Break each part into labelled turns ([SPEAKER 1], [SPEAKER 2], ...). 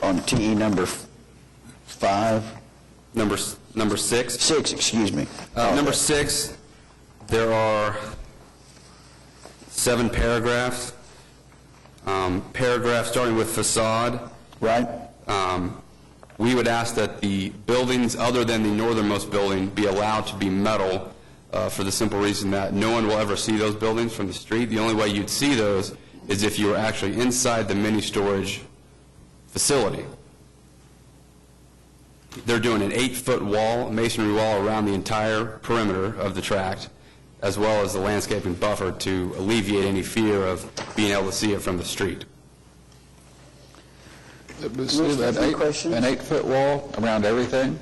[SPEAKER 1] on TE number f- five,
[SPEAKER 2] Number, s- number six.
[SPEAKER 1] six, excuse me.
[SPEAKER 2] Uh, Number six, there are seven paragraphs. Um, Paragraph starting with facade,
[SPEAKER 1] Right?
[SPEAKER 2] um, we would ask that the buildings other than the northernmost building be allowed to be metal uh, for the simple reason that no one will ever see those buildings from the street. The only way you'd see those is if you were actually inside the mini-storage facility. They're doing an eight-foot wall, masonry wall around the entire perimeter of the tract, as well as the landscaping buffer to alleviate any fear of being able to see it from the street.
[SPEAKER 1] Mr. Stephanie, question?
[SPEAKER 3] An eight-foot wall around everything?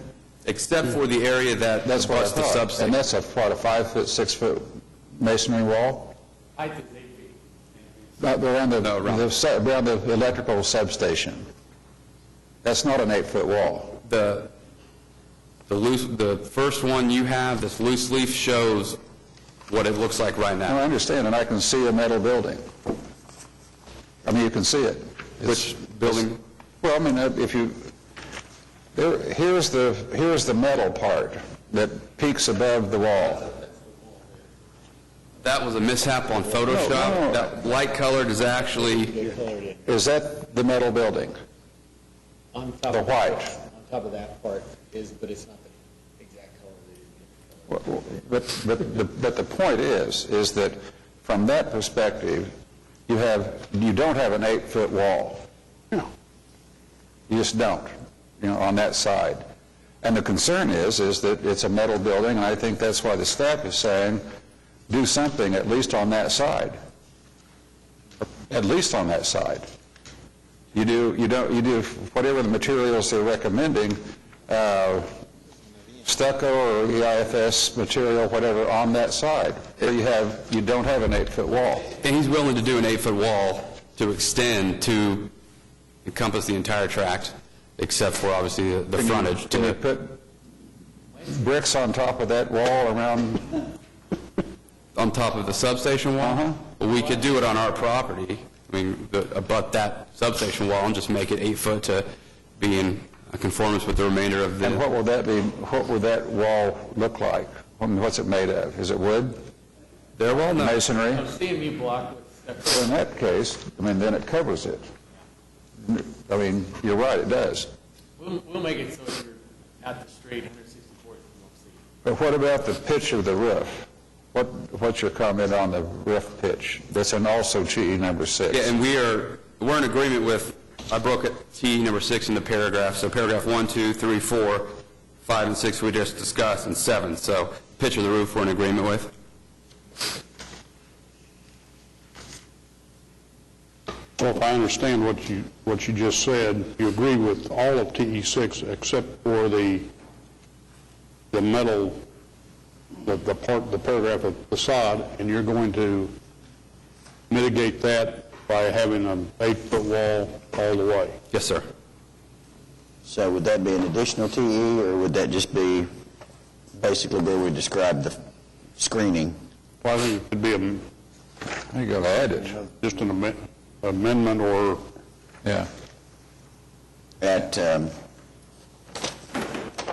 [SPEAKER 2] Except for the area that
[SPEAKER 3] That's
[SPEAKER 2] abuts
[SPEAKER 3] what
[SPEAKER 2] the
[SPEAKER 3] I thought.
[SPEAKER 2] substation.
[SPEAKER 3] And that's a, what, a five-foot, six-foot masonry wall? Height is eight feet. Around the,
[SPEAKER 2] No, around-
[SPEAKER 3] the su- around the electrical substation. That's not an eight-foot wall.
[SPEAKER 2] The, the loose, the first one you have, this loose leaf shows what it looks like right
[SPEAKER 3] Now, I
[SPEAKER 2] now,
[SPEAKER 3] understand, and I can see a metal building. I mean, you can see it. It's-
[SPEAKER 2] which building,
[SPEAKER 3] Well, I mean, uh, if you, there, here's the, here's the metal part that peaks above the wall.
[SPEAKER 2] that was a mishap on
[SPEAKER 3] No, no.
[SPEAKER 2] Photoshop. That light colored is actually,
[SPEAKER 3] Is that the metal building?
[SPEAKER 4] On top
[SPEAKER 3] The
[SPEAKER 4] of
[SPEAKER 3] white.
[SPEAKER 4] that, on top of that part is, but it's not the exact color that it is.
[SPEAKER 3] But, but, the- but the point is, is that from that perspective, you have, you don't have an eight-foot wall. You just don't, you know, on that side. And the concern is, is that it's a metal building, and I think that's why the staff is saying, do something at least on that side. At least on that side. You do, you don't, you do whatever the materials they're recommending, uh, stucco or E EIFS material, whatever, on that side. Where you have, you don't have an eight-foot wall.
[SPEAKER 2] and he's willing to do an eight-foot wall to extend to encompass the entire tract, except for obviously the- the
[SPEAKER 3] Can you-
[SPEAKER 2] frontage.
[SPEAKER 3] Can you
[SPEAKER 2] to
[SPEAKER 3] put bricks on top of that wall around,
[SPEAKER 2] On top of the substation
[SPEAKER 3] Uh-huh.
[SPEAKER 2] wall? We could do it on our property, I mean, the- abut that substation wall and just make it eight foot to be in conformance with the remainder of the...
[SPEAKER 3] and what will that be, what would that wall look like? I mean, What's it made of? Is it wood?
[SPEAKER 2] Their wall? No.
[SPEAKER 3] Masonry?
[SPEAKER 4] CMU block with
[SPEAKER 3] Well, in that case, I mean, then it covers it. I mean, you're right, it does.
[SPEAKER 4] We'll, we'll make it so you're at the street, 164th, you won't see.
[SPEAKER 3] But what about the pitch of the roof? What, what's your comment on the roof pitch? That's in also GE number six.
[SPEAKER 2] Yeah, and we are, we're in agreement with, I broke it, T number six in the paragraph, so paragraph one, two, three, four, five, and six we just discussed, and seven, so pitch of the roof we're in agreement with.
[SPEAKER 5] Well, if I understand what you, what you just said, you agree with all of TE6 except for the, the metal, the, the part, the paragraph of facade, and you're going to mitigate that by having an eight-foot wall all the way.
[SPEAKER 2] Yes, sir.
[SPEAKER 1] So would that be an additional TE, or would that just be basically where we described the screening?
[SPEAKER 5] Well, I think it could be am-
[SPEAKER 3] You gotta add it,
[SPEAKER 5] just an amen- amendment or
[SPEAKER 3] yeah.
[SPEAKER 1] At um,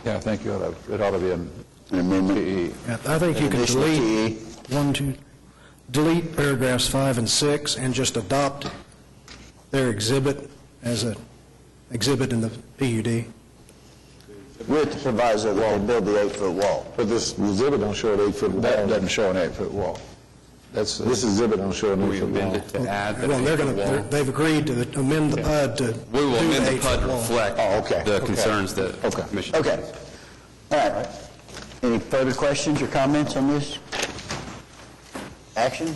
[SPEAKER 3] Yeah, I think you ought to, it ought to be in
[SPEAKER 1] an amendment,
[SPEAKER 3] GE.
[SPEAKER 6] Yeah, I think E. you
[SPEAKER 1] an
[SPEAKER 6] can
[SPEAKER 1] additional
[SPEAKER 6] delete,
[SPEAKER 1] TE?
[SPEAKER 6] one, two, delete paragraphs five and six and just adopt their exhibit as a exhibit in the PUD.
[SPEAKER 1] With the proviso that they build the eight-foot wall.
[SPEAKER 7] But this exhibit don't show an eight-foot
[SPEAKER 3] That
[SPEAKER 7] wall.
[SPEAKER 3] doesn't show an eight-foot wall. That's,
[SPEAKER 7] This exhibit don't show an
[SPEAKER 2] We
[SPEAKER 7] eight-foot
[SPEAKER 2] amend
[SPEAKER 7] wall.
[SPEAKER 2] it to add
[SPEAKER 6] Well, they're going to,
[SPEAKER 2] the...
[SPEAKER 6] they've agreed to amend the PUD to do
[SPEAKER 2] We will amend
[SPEAKER 6] the
[SPEAKER 2] the PUD
[SPEAKER 6] eight-foot
[SPEAKER 2] to
[SPEAKER 6] wall.
[SPEAKER 2] reflect
[SPEAKER 3] Oh, okay,
[SPEAKER 2] the
[SPEAKER 3] okay.
[SPEAKER 2] concerns that the
[SPEAKER 3] Okay.
[SPEAKER 2] commission...
[SPEAKER 1] E. Okay. All right. Any further questions or comments on this? Action?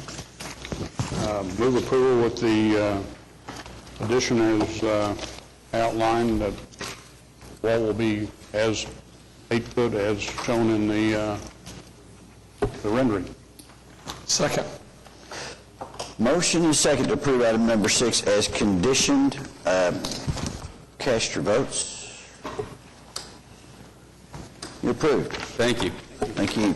[SPEAKER 5] uh, move approval with the uh, addition as uh, outlined, that wall will be as eight foot as shown in the uh, the rendering.
[SPEAKER 3] Second.
[SPEAKER 1] Motion and second to approve item number six as conditioned. Um, Cast your votes. You're approved.
[SPEAKER 2] Thank you.
[SPEAKER 1] Thank you.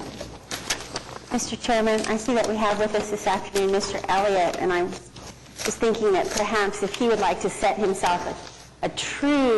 [SPEAKER 8] Mr. Chairman, I see that we have with us this afternoon Mr. Elliott, and I was thinking that perhaps if he would like to set himself a a true